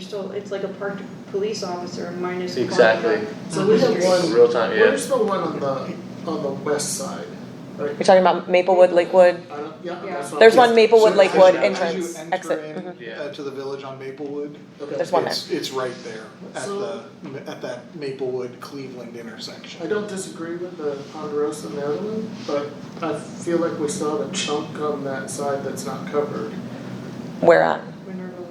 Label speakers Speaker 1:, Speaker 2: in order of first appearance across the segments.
Speaker 1: still, it's like a parked police officer minus a parked
Speaker 2: Exactly.
Speaker 1: truck.
Speaker 3: So we have
Speaker 2: In
Speaker 3: one,
Speaker 2: Real time, yeah.
Speaker 3: where's the one on the, on the west side, right?
Speaker 4: You're talking about Maplewood, Lakewood?
Speaker 3: I don't, yeah,
Speaker 1: Yeah.
Speaker 3: that's what I'm
Speaker 4: There's one
Speaker 3: thinking.
Speaker 4: Maplewood,
Speaker 5: So as you- as
Speaker 4: Lakewood
Speaker 5: you
Speaker 4: entrance,
Speaker 5: enter
Speaker 4: exit.
Speaker 5: in,
Speaker 4: Mhm.
Speaker 2: Yeah.
Speaker 5: uh, to the village on Maplewood.
Speaker 3: Okay.
Speaker 4: There's one there.
Speaker 5: It's, it's right there at the,
Speaker 3: So-
Speaker 5: at that Maplewood Cleveland
Speaker 3: I
Speaker 5: intersection.
Speaker 3: don't disagree with the Ponderosa Maryland, but I feel like we still have a chunk on that side that's not covered.
Speaker 4: Where at?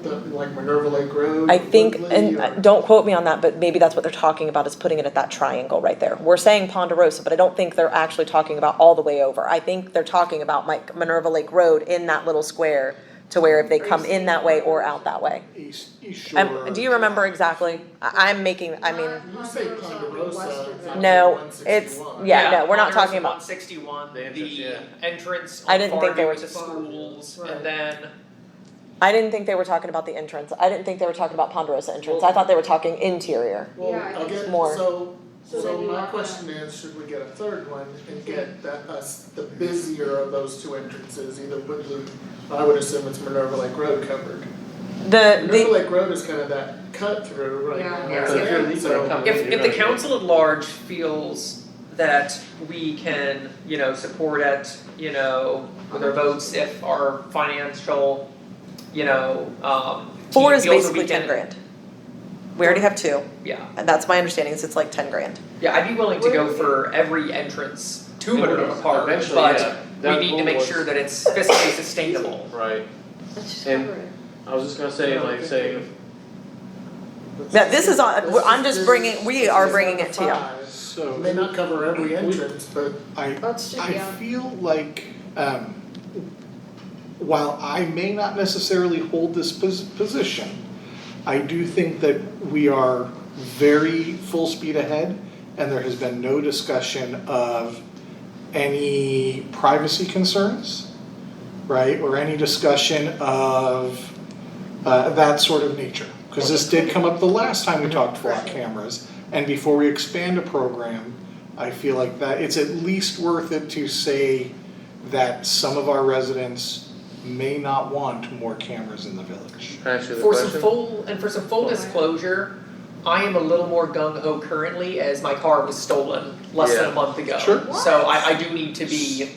Speaker 3: The,
Speaker 1: Minerva.
Speaker 3: like Minerva Lake Road,
Speaker 4: I think,
Speaker 3: Woodley,
Speaker 4: and uh,
Speaker 3: or-
Speaker 4: don't quote me on that, but maybe that's what they're talking about, is putting it at that triangle right there. We're saying Ponderosa, but I don't think they're actually talking about all the way over. I think they're talking about like Minerva Lake Road in that little square to where if they come in that way or out that way.
Speaker 5: East, East Shore.
Speaker 4: Um, do you remember exactly? I, I'm making, I mean,
Speaker 3: When You say Ponderosa, it's not
Speaker 4: No,
Speaker 3: like
Speaker 4: it's-
Speaker 3: 161.
Speaker 4: yeah. no, we're not talking about-
Speaker 6: One sixty-one,
Speaker 2: The entrance, yeah.
Speaker 6: the entrance
Speaker 4: I didn't think they
Speaker 6: farther
Speaker 4: were-
Speaker 6: to schools,
Speaker 3: Right.
Speaker 6: and then,
Speaker 4: I didn't think they were talking about the entrance. I didn't think they were talking about Ponderosa entrance. I thought they were talking interior.
Speaker 3: Well,
Speaker 1: Yeah, I think
Speaker 3: again,
Speaker 4: more.
Speaker 3: so,
Speaker 1: So
Speaker 3: so
Speaker 1: then you
Speaker 3: my
Speaker 1: want
Speaker 3: question is, should we get a third one and get that, us, the busier of those two entrances, either Woodland, I would assume it's Minerva Lake Road
Speaker 4: Uh,
Speaker 3: covered.
Speaker 4: The,
Speaker 3: Minerva
Speaker 4: the,
Speaker 3: Lake Road is kind of that cut through right
Speaker 1: Yeah.
Speaker 3: now,
Speaker 1: Yeah.
Speaker 3: so-
Speaker 2: Yeah.
Speaker 3: so-
Speaker 2: Yeah.
Speaker 6: if, if the council at large feels that we can, you know, support it, you know, with our votes, if our financial, you know, um,
Speaker 4: four is
Speaker 6: feels that we
Speaker 4: basically ten
Speaker 6: can-
Speaker 4: grand. We already have two.
Speaker 6: Yeah,
Speaker 4: And that's my understanding, is it's like ten grand.
Speaker 6: yeah, I'd be willing to
Speaker 1: Where
Speaker 6: go
Speaker 1: is it?
Speaker 6: for every entrance to Minerva Park,
Speaker 2: Eventually,
Speaker 6: but
Speaker 2: yeah.
Speaker 6: we
Speaker 2: That
Speaker 6: need to
Speaker 2: goal
Speaker 6: make
Speaker 2: was-
Speaker 6: sure that it's fiscally sustainable.
Speaker 2: Right,
Speaker 1: Let's just
Speaker 2: And-
Speaker 1: cover it.
Speaker 2: I was just gonna say, like, say,
Speaker 4: Now, this is on- I'm just
Speaker 3: this
Speaker 4: bringing-
Speaker 3: is-
Speaker 4: we are
Speaker 3: this is
Speaker 4: bringing
Speaker 3: number
Speaker 4: it to you.
Speaker 3: five. It May
Speaker 5: So
Speaker 3: not cover every entrance, but
Speaker 5: I,
Speaker 1: Let's just,
Speaker 5: I
Speaker 1: yeah.
Speaker 5: feel like, um, while I may not necessarily hold this pos- position, I do think that we are very full speed ahead and there has been no discussion of any privacy concerns, right? Or any discussion of uh, that sort of nature. Because this did come up the last time we talked flock cameras. And before we expand a program, I feel like that it's at least worth it to say that some of our residents may not want more cameras in the village.
Speaker 2: can I ask you the
Speaker 6: For some
Speaker 2: question?
Speaker 6: full, and for some full disclosure, I am a little more gung ho currently as my car was stolen less than
Speaker 2: Yeah.
Speaker 6: a month ago.
Speaker 5: Sure.
Speaker 6: So I, I do need to be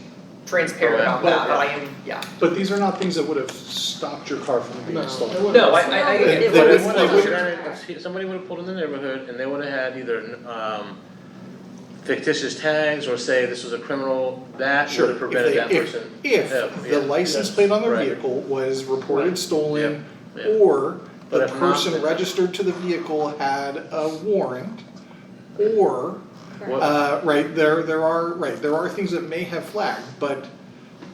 Speaker 6: transparent about that, but I am, yeah.
Speaker 5: But these are not things that would have stopped your car from
Speaker 3: no,
Speaker 5: being stolen.
Speaker 3: it wouldn't.
Speaker 6: No, I, I, I,
Speaker 5: They-
Speaker 6: it
Speaker 5: they
Speaker 6: was-
Speaker 5: would-
Speaker 2: They would've
Speaker 5: they would-
Speaker 2: done it if somebody would have pulled in the neighborhood and they would have had either um, fictitious tags or say this was a criminal, that
Speaker 5: Sure,
Speaker 2: would have
Speaker 5: if
Speaker 2: prevented
Speaker 5: they-
Speaker 2: that
Speaker 5: if-
Speaker 2: person.
Speaker 5: If
Speaker 2: Yeah,
Speaker 5: the
Speaker 2: yeah.
Speaker 5: license plate on their
Speaker 2: Right.
Speaker 5: vehicle was reported
Speaker 3: Right.
Speaker 5: stolen,
Speaker 2: Yeah, yeah.
Speaker 5: or
Speaker 2: But
Speaker 5: the
Speaker 2: if not,
Speaker 5: person
Speaker 2: then-
Speaker 5: registered to the vehicle had a warrant, or,
Speaker 2: What-
Speaker 5: uh, right, there, there are, right, there are things that may have flagged, but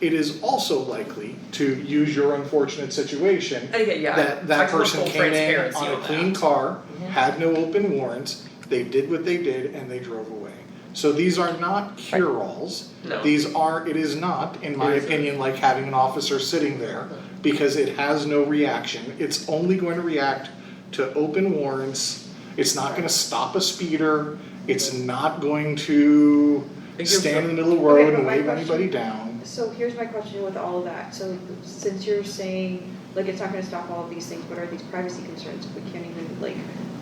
Speaker 5: it is also likely, to use your unfortunate situation,
Speaker 6: and again, yeah,
Speaker 5: that
Speaker 6: I
Speaker 5: that
Speaker 6: just want
Speaker 5: person
Speaker 6: full
Speaker 5: came in
Speaker 6: transparency
Speaker 5: on a
Speaker 6: on that.
Speaker 5: clean car,
Speaker 4: Mm-hmm.
Speaker 5: had no open warrants, they did what they did and they drove away. So these are not cure-alls,
Speaker 6: No.
Speaker 5: these are, it is not, in my
Speaker 2: It isn't.
Speaker 5: opinion, like having an officer sitting there because it has no reaction, it's only going to react to open warrants, it's not gonna stop a speeder, it's not going to
Speaker 2: It gives
Speaker 5: stand
Speaker 2: them-
Speaker 5: in the middle of the road
Speaker 1: Okay, but
Speaker 5: and
Speaker 1: my
Speaker 5: wave
Speaker 1: question-
Speaker 5: anybody down.
Speaker 1: So here's my question with all of that, so since you're saying, like, it's not gonna stop all of these things, what are these privacy concerns, we can't even, like,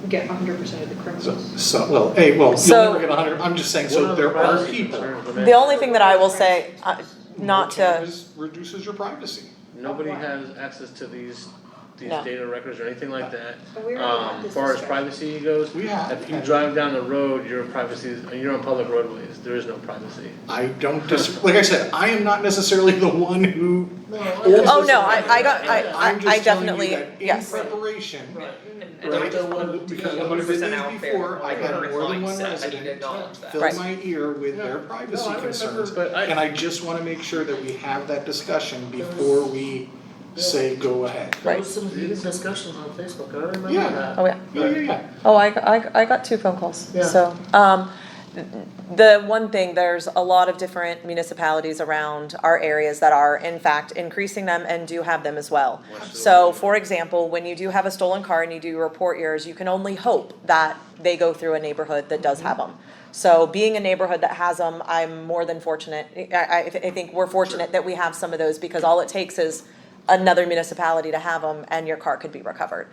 Speaker 1: get hundred percent of the
Speaker 5: So,
Speaker 1: criminals?
Speaker 5: so, well, hey, well, you'll
Speaker 4: So-
Speaker 5: never get a hundred, I'm just saying,
Speaker 2: What
Speaker 5: so
Speaker 2: other
Speaker 5: there are
Speaker 2: privacy
Speaker 5: people.
Speaker 2: concerns would
Speaker 4: The
Speaker 2: they-
Speaker 4: only thing that I will say, uh, not to,
Speaker 5: Cameras reduces your privacy.
Speaker 2: Nobody
Speaker 1: Why?
Speaker 2: has access to these, these
Speaker 4: No.
Speaker 2: data records or anything like that.
Speaker 1: But we already had
Speaker 2: Um,
Speaker 1: this
Speaker 2: far as
Speaker 1: discussion.
Speaker 2: privacy goes,
Speaker 5: We have.
Speaker 2: if you drive down the road, your privacy, is- you're on public roadways, there is no privacy.
Speaker 5: I don't dis, like I said, I am not necessarily the one who,
Speaker 3: No,
Speaker 4: oh no, I, I got, I,
Speaker 5: I'm
Speaker 4: I I
Speaker 5: just telling
Speaker 4: definitely,
Speaker 5: you that in
Speaker 4: yes.
Speaker 5: preparation,
Speaker 6: Right. And, and
Speaker 5: Right.
Speaker 6: I just want to be
Speaker 5: Because
Speaker 6: one
Speaker 5: what it
Speaker 6: hundred
Speaker 5: is
Speaker 6: percent out there,
Speaker 5: before, I
Speaker 6: like
Speaker 5: got
Speaker 6: current
Speaker 5: more than one
Speaker 6: mindset, I need
Speaker 5: resident.
Speaker 6: to acknowledge that.
Speaker 5: fill
Speaker 4: Right.
Speaker 5: my ear with their
Speaker 3: Yeah.
Speaker 5: privacy
Speaker 3: No, I
Speaker 5: concerns.
Speaker 3: remember-
Speaker 2: But I-
Speaker 5: And I just wanna make sure that we have that discussion before we say go ahead.
Speaker 3: There
Speaker 4: Right.
Speaker 3: was some heated discussions on Facebook, I remember that.
Speaker 5: Yeah.
Speaker 4: Oh, yeah.
Speaker 5: Yeah, yeah, yeah.
Speaker 4: Oh, I, I, I got two phone calls,
Speaker 3: Yeah.
Speaker 4: so, um, the one thing, there's a lot of different municipalities around our areas that are in fact increasing them and do have them as well. So, for example, when you do have a stolen car and you do report yours, you can only hope that they go through a neighborhood that does have them. So being a neighborhood that has them, I'm more than fortunate, I, I, I think we're fortunate that we have some of those, because all it takes is another municipality to have them and your car could be recovered.